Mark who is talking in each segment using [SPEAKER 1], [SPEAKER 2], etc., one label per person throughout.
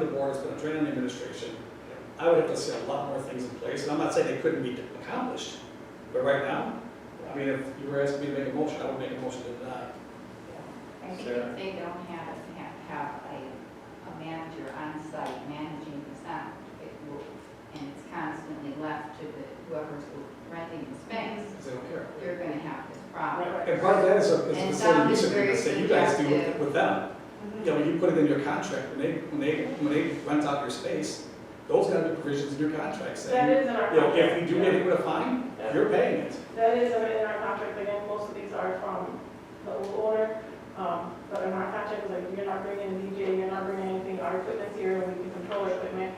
[SPEAKER 1] it's gonna drain on the administration. I would have to see a lot more things in place, and I'm not saying they couldn't be accomplished, but right now, I mean, if you were asking me to make a motion, I would make a motion to deny.
[SPEAKER 2] I think if they don't have, a- have, have a, a manager on site managing the sound, it will, and it's constantly left to the, whoever's renting the space,
[SPEAKER 1] Because they don't care.
[SPEAKER 2] you're gonna have this problem.
[SPEAKER 1] And part of that is a, is a
[SPEAKER 2] And
[SPEAKER 1] facility
[SPEAKER 2] sound
[SPEAKER 1] use
[SPEAKER 2] is
[SPEAKER 1] agreement,
[SPEAKER 2] very
[SPEAKER 1] say you guys do with,
[SPEAKER 2] subjective.
[SPEAKER 1] with them. You know, you put it in your contract, when they, when they, when they rent out your space, those gotta be provisions in your contract
[SPEAKER 3] That
[SPEAKER 1] saying,
[SPEAKER 3] is in our
[SPEAKER 1] you know, if
[SPEAKER 3] contract.
[SPEAKER 1] we do get hit with a fine, you're paying it.
[SPEAKER 3] That is in our contract, again, most of these are from the old order, um, but in our contract, it's like, you're not bringing a DJ, you're not bringing anything, our equipment's here, and we can control our equipment.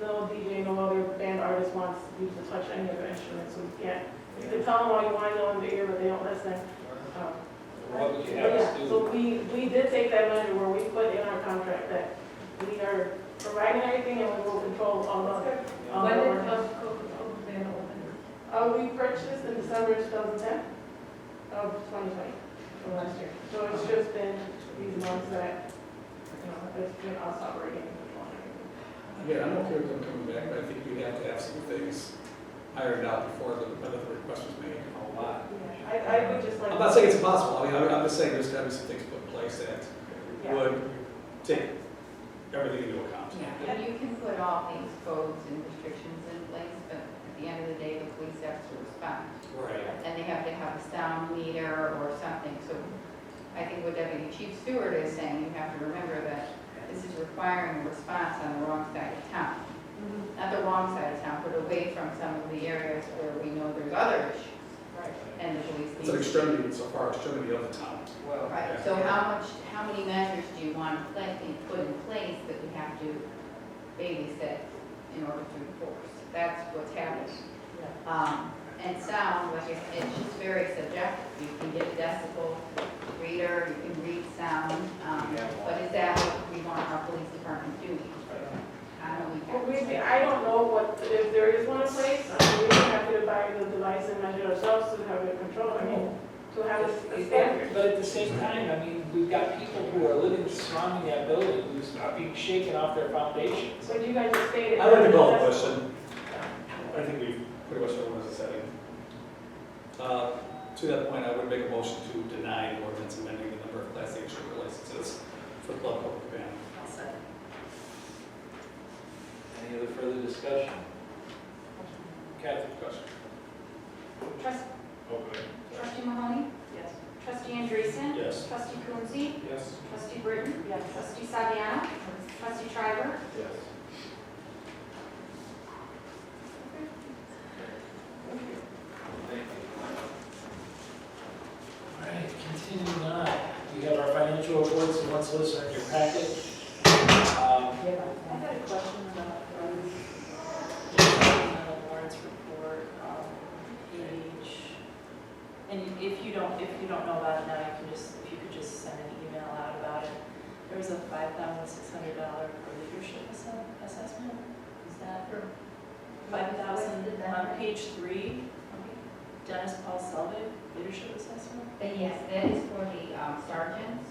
[SPEAKER 3] No DJ, no other band artist wants you to touch any of the instruments, so we can't, you can tell them all you want to in the ear, but they don't listen. Um,
[SPEAKER 4] What would you
[SPEAKER 3] But
[SPEAKER 4] have us
[SPEAKER 3] yeah,
[SPEAKER 4] do?
[SPEAKER 3] So we, we did take that measure where we put in our contract that we are providing everything and we will control all Um, the. all the
[SPEAKER 5] When did
[SPEAKER 3] ordinance.
[SPEAKER 5] Club Coca-Cola open?
[SPEAKER 3] Uh, we purchased in December two thousand ten, of twenty twenty, from last year. So it's just been these months that, you know, it's been us operating.
[SPEAKER 1] Yeah, I'm okay with them coming back, but I think we have to have some things ironed out before the, by the request was made. A lot.
[SPEAKER 3] Yeah, I, I would just like.
[SPEAKER 1] I'm not saying it's impossible, I mean, I'm I'm just saying there's gotta be some things put in place that
[SPEAKER 3] Yeah.
[SPEAKER 1] would take everything into account.
[SPEAKER 2] Yeah, and you can put all these codes and restrictions in place, but at the end of the day, the police have to respond.
[SPEAKER 1] Right.
[SPEAKER 2] And they have to have a sound meter or something, so I think what Deputy Chief Stewart is saying, you have to remember that this is requiring a response on the wrong side of town. Not the wrong side of town, but away from some of the areas where we know there's other issues. Right. And the police
[SPEAKER 1] It's an
[SPEAKER 2] needs.
[SPEAKER 1] extremity so far, extremity of the town.
[SPEAKER 4] Well,
[SPEAKER 2] Right, so how much, how many measures do you want to pla- be put in place that we have to babysit in order to enforce? That's what's happening. Um, and sound, like I said, it's just very subjective. You can get a decibel reader, you can read sound, um, but is that what we want our police department doing? I don't
[SPEAKER 3] Well,
[SPEAKER 2] know.
[SPEAKER 3] we, I don't know what, if there is one in place, I mean, we would have to buy the device and measure ourselves to have it controlled, I mean, to have a a standard.
[SPEAKER 4] But at the same time, I mean, we've got people who are living surrounding that building who's not being shaken off their foundations.
[SPEAKER 3] But you guys just stated.
[SPEAKER 1] I like the golf
[SPEAKER 3] that's-
[SPEAKER 1] question. I think we've pretty much everyone's setting. Uh, to that point, I would make a motion to deny the ordinance amending the number of class A liquor licenses for Club Public Band.
[SPEAKER 4] Any other further discussion? Kathy, question? Okay.
[SPEAKER 6] Trustee Mahoney?
[SPEAKER 3] Yes.
[SPEAKER 6] Trustee Andreessen?
[SPEAKER 1] Yes.
[SPEAKER 6] Trustee Coonsey?
[SPEAKER 4] Yes.
[SPEAKER 6] Trustee Britton?
[SPEAKER 3] Yes.
[SPEAKER 6] Trustee Saviano? Trustee Schreiber?
[SPEAKER 4] Yes. Thank you. All right, continuing on, we have our financial reports and what's listed in your packet. Um,
[SPEAKER 7] I had a question about, um, just on the Lawrence report, um, page, and if you don't, if you don't know about it now, you can just, if you could just send an email out about it. There was a five thousand six hundred dollar for leadership asse- assessment, is that? Five thousand, on page three, Dennis Paul Selvig, leadership assessment?
[SPEAKER 2] But yes, that is for the um, sergeants.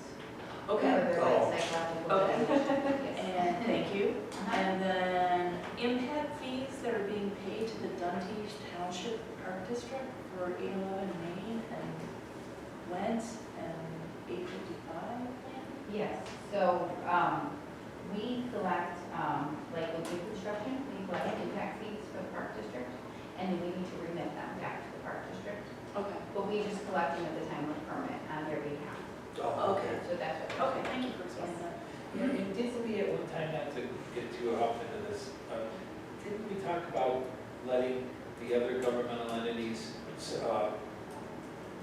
[SPEAKER 7] Okay,
[SPEAKER 2] For their
[SPEAKER 1] Oh.
[SPEAKER 2] psychological
[SPEAKER 7] Okay.
[SPEAKER 2] evaluation.
[SPEAKER 7] and thank you.
[SPEAKER 2] Uh-huh.
[SPEAKER 7] And then impact fees that are being paid to the Dundee Township Park District for 811 Main and Went and 855.
[SPEAKER 2] Yes, so, um, we collect, um, like with new construction, we collect impact fees for the park district, and then we need to remit them back to the park district,
[SPEAKER 7] Okay.
[SPEAKER 2] but we just collect them at the time of permit on their behalf,
[SPEAKER 1] Oh,
[SPEAKER 7] Okay.
[SPEAKER 2] so that's what.
[SPEAKER 7] Okay, thank you for explaining that.
[SPEAKER 4] Yeah, and didn't we at one time, not to get too off into this, uh, didn't we talk about letting the other governmental entities uh,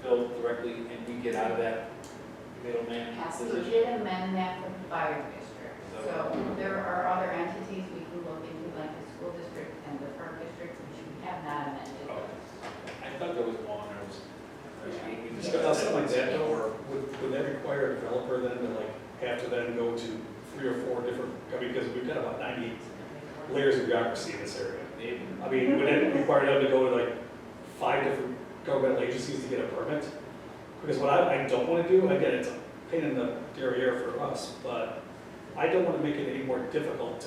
[SPEAKER 4] bill directly and we get out of that middleman
[SPEAKER 2] We
[SPEAKER 4] position?
[SPEAKER 2] did amend that for the fire district, so there are other entities we can look into, like the school district and the park district, which we have not amended.
[SPEAKER 4] Oh, I thought there was one, there was, we- we discussed
[SPEAKER 1] Now,
[SPEAKER 4] that.
[SPEAKER 1] something like that, though, or would, would that require a developer then to like, have to then go to three or four different, I mean, because we've got about ninety layers of bureaucracy in this area.
[SPEAKER 4] Maybe.
[SPEAKER 1] I mean, would it require them to go to like five different governmental agencies to get a permit? Because what I, I don't wanna do, again, it's a pain in the derriere for us, but I don't wanna make it any more difficult to